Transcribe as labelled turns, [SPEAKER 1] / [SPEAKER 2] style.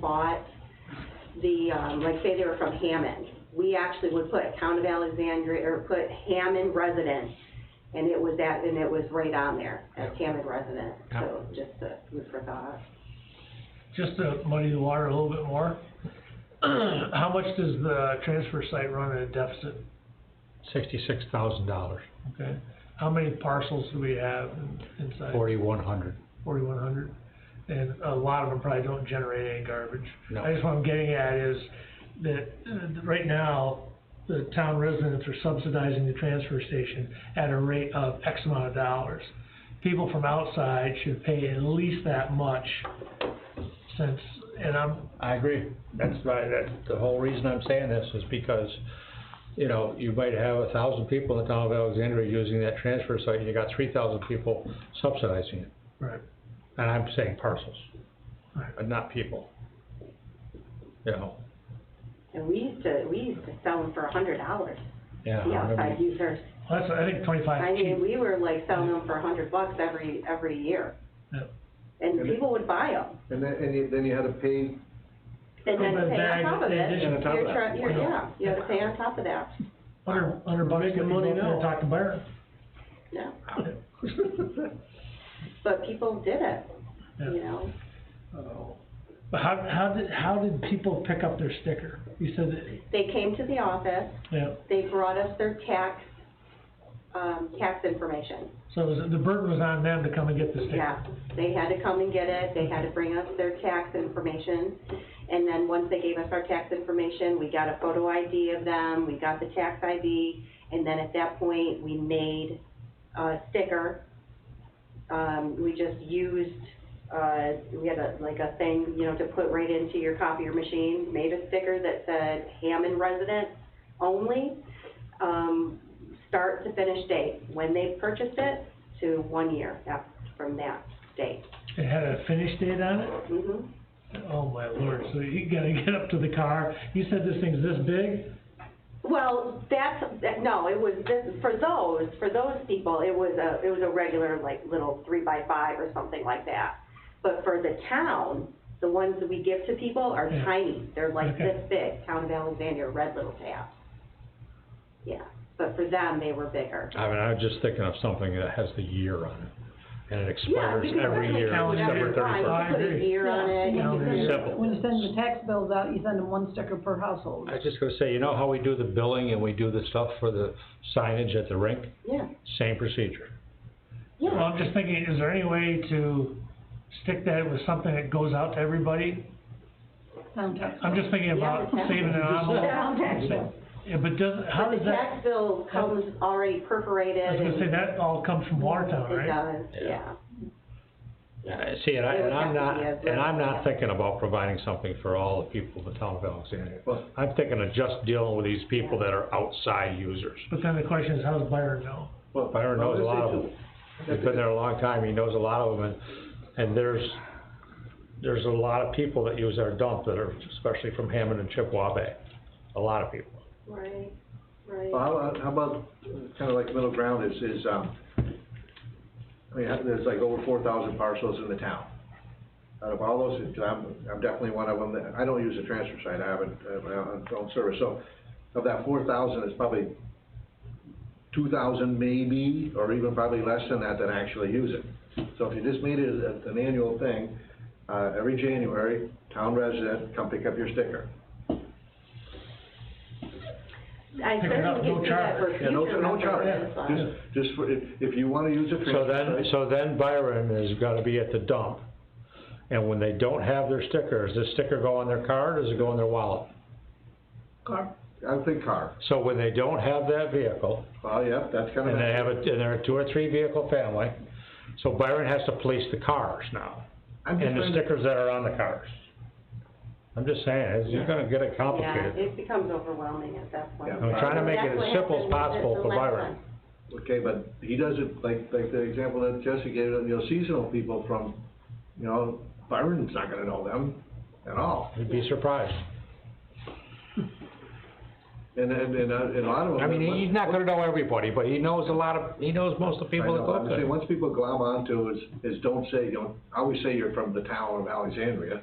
[SPEAKER 1] bought the, um, like, say they were from Hammond, we actually would put Town of Alexandria, or put Hammond resident, and it was that, and it was right on there, as Hammond resident, so just uh food for thought.
[SPEAKER 2] Just to muddy the water a little bit more, how much does the transfer site run at a deficit?
[SPEAKER 3] Sixty-six thousand dollars,
[SPEAKER 2] Okay, how many parcels do we have in- inside?
[SPEAKER 3] forty-one hundred.
[SPEAKER 2] Forty-one hundred? And a lot of them probably don't generate any garbage.
[SPEAKER 3] No.
[SPEAKER 2] I guess what I'm getting at is that, uh, right now, the town residents are subsidizing the transfer station at a rate of X amount of dollars. People from outside should pay at least that much since, and I'm,
[SPEAKER 3] I agree. That's why, that's the whole reason I'm saying this is because, you know, you might have a thousand people in the town of Alexandria using that transfer site, and you got three thousand people subsidizing it.
[SPEAKER 2] right.
[SPEAKER 3] And I'm saying parcels,
[SPEAKER 2] Right.
[SPEAKER 3] but not people. You know,
[SPEAKER 1] And we used to, we used to sell them for a hundred dollars,
[SPEAKER 3] yeah. I
[SPEAKER 1] the
[SPEAKER 3] remember-
[SPEAKER 1] outside users.
[SPEAKER 2] Well, That's, I think
[SPEAKER 1] I
[SPEAKER 2] twenty-five
[SPEAKER 1] mean,
[SPEAKER 2] cheap,
[SPEAKER 1] we were like selling them for a hundred bucks every, every year.
[SPEAKER 2] Yep.
[SPEAKER 1] And people would buy them,
[SPEAKER 4] And then, and you, then you had to pay,
[SPEAKER 1] and then pay on
[SPEAKER 2] Open bag
[SPEAKER 1] top of
[SPEAKER 2] in
[SPEAKER 1] it,
[SPEAKER 2] addition
[SPEAKER 4] to top of
[SPEAKER 1] you're
[SPEAKER 4] that.
[SPEAKER 1] trying, you're, yeah, you have to pay on top of that,
[SPEAKER 2] hundred, hundred bucks to
[SPEAKER 4] making
[SPEAKER 2] go up
[SPEAKER 4] money
[SPEAKER 2] there and
[SPEAKER 4] now.
[SPEAKER 2] talk to Byron.
[SPEAKER 1] yeah. But people did it, you know?
[SPEAKER 2] But how, how did, how did people pick up their sticker? You said that,
[SPEAKER 1] They came to the office,
[SPEAKER 2] yeah,
[SPEAKER 1] they brought us their tax, um, tax information.
[SPEAKER 2] so it was, the burden was on them to come and get the sticker.
[SPEAKER 1] Yeah, they had to come and get it, they had to bring us their tax information, and then once they gave us our tax information, we got a photo ID of them, we got the tax ID, and then at that point, we made a sticker. Um, we just used, uh, we had a, like a thing, you know, to put right into your copier machine, made a sticker that said Hammond resident only, um, start to finish date, when they purchased it, to one year af- from that date.
[SPEAKER 2] It had a finish date on it?
[SPEAKER 1] Mhm.
[SPEAKER 2] Oh my lord, so you gotta get up to the car, you said this thing's this big?
[SPEAKER 1] Well, that's, that, no, it was, this- for those, for those people, it was a, it was a regular, like, little three by five or something like that. But for the town, the ones that we give to people are
[SPEAKER 2] Yeah.
[SPEAKER 1] tiny, they're like
[SPEAKER 2] Okay.
[SPEAKER 1] this big, Town of Alexandria, red little tabs. Yeah, but for them, they were bigger.
[SPEAKER 3] I mean, I was just thinking of something that has the year on it, and it
[SPEAKER 1] Yeah,
[SPEAKER 3] expires
[SPEAKER 1] you could
[SPEAKER 3] every
[SPEAKER 1] definitely
[SPEAKER 3] year,
[SPEAKER 1] put
[SPEAKER 2] calendar
[SPEAKER 3] December
[SPEAKER 2] year.
[SPEAKER 3] thirty-first.
[SPEAKER 2] I
[SPEAKER 1] You could put a
[SPEAKER 2] agree.
[SPEAKER 1] year on it, you
[SPEAKER 2] Yeah.
[SPEAKER 1] could
[SPEAKER 2] Calendar
[SPEAKER 1] do-
[SPEAKER 3] year. Simple.
[SPEAKER 5] When you send the tax bills out, you send them one sticker per household.
[SPEAKER 3] I was just gonna say, you know how we do the billing and we do the stuff for the signage at the rink?
[SPEAKER 1] Yeah,
[SPEAKER 3] Same procedure.
[SPEAKER 1] yeah.
[SPEAKER 2] Well, I'm just thinking, is there any way to stick that with something that goes out to everybody?
[SPEAKER 5] Town tax.
[SPEAKER 2] I'm just thinking about
[SPEAKER 1] Yeah.
[SPEAKER 2] saving an envelope.
[SPEAKER 1] Town tax bill.
[SPEAKER 2] Yeah, but does, how
[SPEAKER 1] But the
[SPEAKER 2] does that,
[SPEAKER 1] tax bill comes already perforated
[SPEAKER 2] I was gonna
[SPEAKER 1] and-
[SPEAKER 2] say, that all comes from Watertown,
[SPEAKER 1] It
[SPEAKER 2] right?
[SPEAKER 1] does, yeah.
[SPEAKER 3] Uh, See, and I,
[SPEAKER 1] It would
[SPEAKER 3] and I'm
[SPEAKER 1] have
[SPEAKER 3] not,
[SPEAKER 1] to be a
[SPEAKER 3] and I'm
[SPEAKER 1] very-
[SPEAKER 3] not thinking about providing something for all the people in the town of Alexandria.
[SPEAKER 4] Well-
[SPEAKER 3] I'm thinking of just dealing with these people that are outside users.
[SPEAKER 2] But then the question is, how does Byron know?
[SPEAKER 4] well.
[SPEAKER 3] Byron knows a lot of them. He's been there a long time, he knows a lot of them, and, and there's, there's a lot of people that use our dump that are, especially from Hammond and Chippewa Bay. A lot of people.
[SPEAKER 1] Right, right.
[SPEAKER 4] Well, how, how about, kinda like middle ground is, is, um, I mean, there's like over four thousand parcels in the town. Out of all those, I'm, I'm definitely one of them, that- I don't use the transfer site, I haven't, I don't service, so of that four thousand, it's probably two thousand maybe, or even probably less than that, that actually use it. So if you just made it a- an annual thing, uh, every January, town resident, come pick up your sticker.
[SPEAKER 1] I
[SPEAKER 2] Pick it up,
[SPEAKER 1] certainly
[SPEAKER 2] no
[SPEAKER 1] can see that for
[SPEAKER 2] charge.
[SPEAKER 4] Yeah, no,
[SPEAKER 1] future
[SPEAKER 4] no charge,
[SPEAKER 1] references, but-
[SPEAKER 4] just, just for, if, if you wanna use a
[SPEAKER 3] So
[SPEAKER 4] transfer
[SPEAKER 3] then,
[SPEAKER 4] site-
[SPEAKER 3] so then Byron is gonna be at the dump, and when they don't have their sticker, does the sticker go on their card, or does it go in their wallet?
[SPEAKER 5] Car.
[SPEAKER 4] I would think car.
[SPEAKER 3] So when they don't have that vehicle,
[SPEAKER 4] Well, yeah, that's kind
[SPEAKER 3] and
[SPEAKER 4] of,
[SPEAKER 3] they
[SPEAKER 4] it.
[SPEAKER 3] have a, and they're a two or three vehicle family, so Byron has to police the cars now,
[SPEAKER 4] I'm just
[SPEAKER 3] and the
[SPEAKER 4] trying to,
[SPEAKER 3] stickers that are on the cars. I'm just saying, it's, you're gonna get it
[SPEAKER 1] Yeah,
[SPEAKER 3] complicated.
[SPEAKER 1] it becomes overwhelming at that point.
[SPEAKER 4] Yeah.
[SPEAKER 3] I'm trying to make it
[SPEAKER 1] That's what
[SPEAKER 3] as simple as
[SPEAKER 1] happened with
[SPEAKER 3] possible
[SPEAKER 1] the
[SPEAKER 3] for
[SPEAKER 1] last
[SPEAKER 3] Byron.
[SPEAKER 1] one.
[SPEAKER 4] okay, but he doesn't, like, like the example that Jesse gave, you know, seasonal people from, you know, Byron's not gonna know them at all.
[SPEAKER 3] You'd be surprised.
[SPEAKER 4] And, and, and, uh, and a lot of them.
[SPEAKER 3] I mean, he- he's not gonna know everybody, but he knows a lot of, he knows most of the
[SPEAKER 4] I
[SPEAKER 3] people that
[SPEAKER 4] know,
[SPEAKER 3] go
[SPEAKER 4] I'm saying,
[SPEAKER 3] there.
[SPEAKER 4] once people glom onto is, is don't say, you know, I always say you're from the town of Alexandria,